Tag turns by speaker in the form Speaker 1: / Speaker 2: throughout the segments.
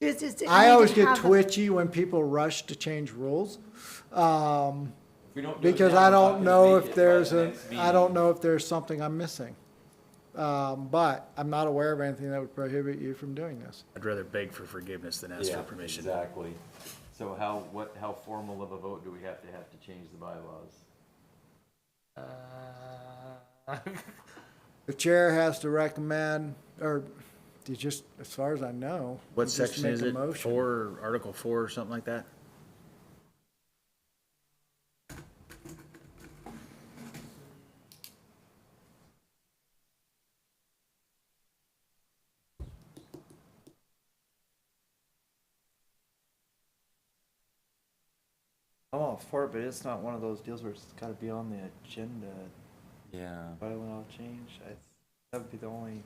Speaker 1: It's- it's-
Speaker 2: I
Speaker 1: you
Speaker 2: always
Speaker 1: can
Speaker 2: get
Speaker 1: have a-
Speaker 2: twitchy when people rush to change rules. Um,
Speaker 3: If we don't do it
Speaker 2: because
Speaker 3: now,
Speaker 2: I
Speaker 3: it's not
Speaker 2: don't
Speaker 3: gonna
Speaker 2: know if
Speaker 3: make it by the
Speaker 2: there's an,
Speaker 3: next
Speaker 2: I don't
Speaker 3: meeting.
Speaker 2: know if there's something I'm missing. Um, but I'm not aware of anything that would prohibit you from doing this.
Speaker 4: I'd rather beg for forgiveness than ask for
Speaker 3: Yeah,
Speaker 4: permission.
Speaker 3: Exactly. So how, what, how formal of a vote do we have to have to change the bylaws?
Speaker 2: The chair has to recommend, or you just, as far as I know.
Speaker 4: What
Speaker 2: you just
Speaker 4: section
Speaker 2: make
Speaker 4: is
Speaker 2: a
Speaker 4: it?
Speaker 2: motion.
Speaker 4: Four, Article four or something like that?
Speaker 5: I'm all Oh, for it, but it's not one of those deals where it's gotta be on the agenda,
Speaker 3: Yeah.
Speaker 5: bylaw change, I, that would be the only.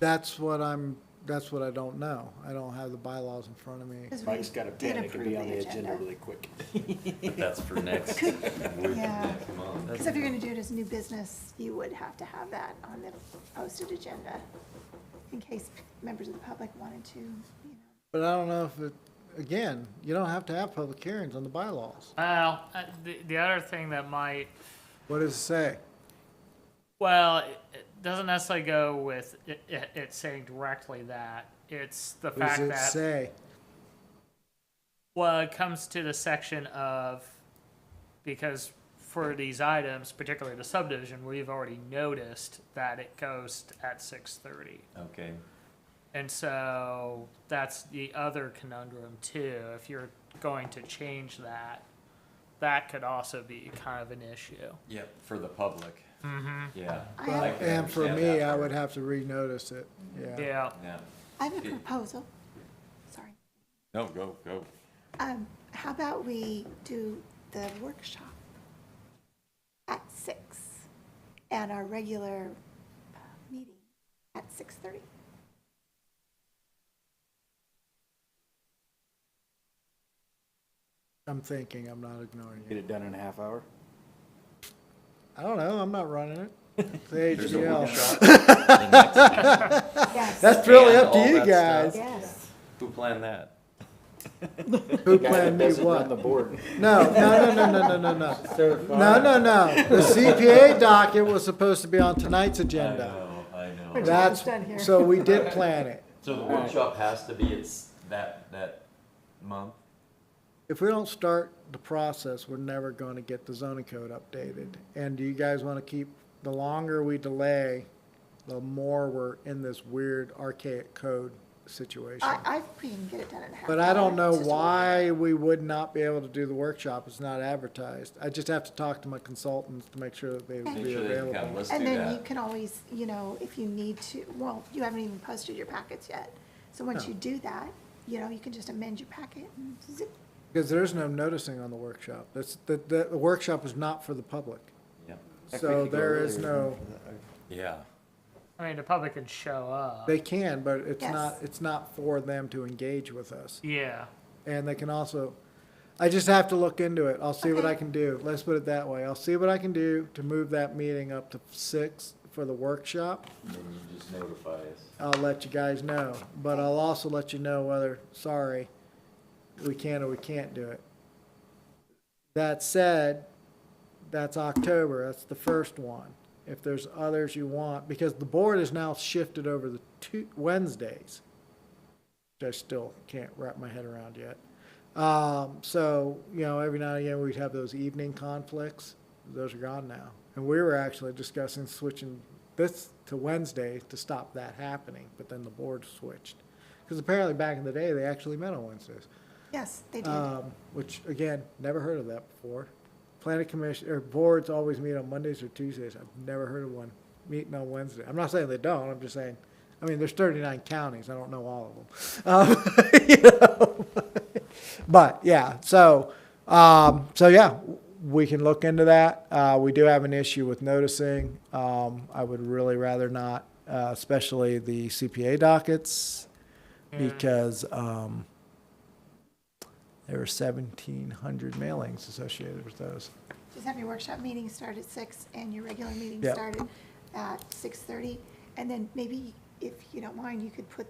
Speaker 2: That's what I'm, that's what I don't know. I don't have the bylaws in front of me.
Speaker 1: 'cause we
Speaker 6: Mike's got a
Speaker 1: did
Speaker 6: pen, it could be
Speaker 1: approve
Speaker 6: on the agenda really quick.
Speaker 3: But that's for next, week,
Speaker 1: Yeah.
Speaker 3: next month.
Speaker 1: Because if you're going to do it as new business, you would have to have that on the posted agenda in case members of the public wanted to, you know.
Speaker 2: But I don't know if it, again, you don't have to have public hearings on the bylaws.
Speaker 7: Well, uh, the, the other thing that might,
Speaker 2: What does it say?
Speaker 7: well, it it doesn't necessarily go with it, it, it saying directly that. It's the
Speaker 2: What
Speaker 7: fact
Speaker 2: does it
Speaker 7: that,
Speaker 2: say?
Speaker 7: well, it comes to the section of, because for these items, particularly the subdivision, we've already noticed that it goes at six thirty.
Speaker 3: Okay.
Speaker 7: And so that's the other conundrum too. If you're going to change that, that could also be kind of an issue.
Speaker 3: Yep. For the public. Mm-hmm. Yeah.
Speaker 1: I
Speaker 3: I
Speaker 1: have-
Speaker 3: can
Speaker 2: And for
Speaker 3: understand
Speaker 2: me,
Speaker 3: that
Speaker 2: I
Speaker 3: part.
Speaker 2: would have to renotice it, yeah.
Speaker 7: Yeah.
Speaker 3: Yeah.
Speaker 1: I have a
Speaker 3: Yeah.
Speaker 1: proposal. Sorry.
Speaker 3: No, go, go.
Speaker 1: Um, how about we do the workshop at six and our regular uh, meeting at six thirty?
Speaker 2: I'm thinking, I'm not ignoring
Speaker 6: Get
Speaker 2: you.
Speaker 6: it done in a half hour.
Speaker 2: I don't know, I'm not running it. It's AGL.
Speaker 1: Yes.
Speaker 2: That's really up to
Speaker 3: And all
Speaker 2: you
Speaker 3: that
Speaker 2: guys.
Speaker 1: Yes.
Speaker 3: Who planned that?
Speaker 2: Who
Speaker 6: Guy that
Speaker 2: planned me
Speaker 6: doesn't run the
Speaker 2: what?
Speaker 6: board.
Speaker 2: No, no, no, no, no, no, no, no. No, no, no. The CPA docket was supposed to be on tonight's
Speaker 3: I
Speaker 2: agenda.
Speaker 3: know, I know.
Speaker 2: That's,
Speaker 1: done here.
Speaker 2: so we did plan it.
Speaker 3: So the workshop has to be, it's that, that month?
Speaker 2: If we don't start the process, we're never going to get the zoning code updated. And do you guys want to keep, the longer we delay, the more we're in this weird archaic code situation?
Speaker 1: I, I think we can get it done in a half.
Speaker 2: But I
Speaker 1: hour.
Speaker 2: don't know
Speaker 1: It's just a-
Speaker 2: why we would not be able to do the workshop. It's not advertised. I just have to talk to my consultants to make sure that they would
Speaker 1: Make
Speaker 2: be
Speaker 3: Make sure they can come,
Speaker 2: available.
Speaker 3: let's do
Speaker 1: And then you
Speaker 3: that.
Speaker 1: can always, you know, if you need to, well, you haven't even posted your packets yet. So
Speaker 3: Oh.
Speaker 1: once you do that, you know, you can just amend your packet and zip.
Speaker 2: Because there's no noticing on the workshop. That's, the, the the workshop is not for the public.
Speaker 3: Yeah.
Speaker 5: heck, we
Speaker 2: So
Speaker 5: could go
Speaker 2: there is
Speaker 5: earlier
Speaker 2: no,
Speaker 5: than that.
Speaker 3: Yeah.
Speaker 7: I mean, the public could show up.
Speaker 2: they can, but it's
Speaker 1: Yes.
Speaker 2: not, it's not for them to engage with us.
Speaker 7: yeah.
Speaker 2: And they can also, I just have to look into it. I'll see what I
Speaker 1: Okay.
Speaker 2: can do. Let's put it that way. I'll see what I can do to move that meeting up to six for the workshop.
Speaker 3: Then you just notify us.
Speaker 2: I'll let you guys know, but I'll also let you know whether, sorry, we can or we can't do it. That said, that's October, that's the first one. If there's others you want, because the board is now shifted over the two, Wednesdays, which I still can't wrap my head around yet. Um, so, you know, every now and again, we'd have those evening conflicts. Those are gone now. And we were actually discussing switching this to Wednesday to stop that happening, but then the board switched. Because apparently back in the day, they actually met on Wednesdays,
Speaker 1: Yes, they did.
Speaker 3: Uh.
Speaker 2: um, which again, never heard of that before. Planning commission, or boards always meet on Mondays or Tuesdays. I've never heard of one meeting on Wednesday. I'm not saying they don't, I'm just saying, I mean, there's thirty-nine counties, I don't know all of them. Um, you know? But yeah, so um, so yeah, we can look into that. Uh, we do have an issue with noticing. Um, I would really rather not, uh, especially the CPA dockets, because um, there were seventeen hundred mailings associated with those.
Speaker 1: Just have your workshop meeting start at six and your regular meeting
Speaker 2: Yep.
Speaker 1: start at six thirty. And then maybe if you don't mind, you could put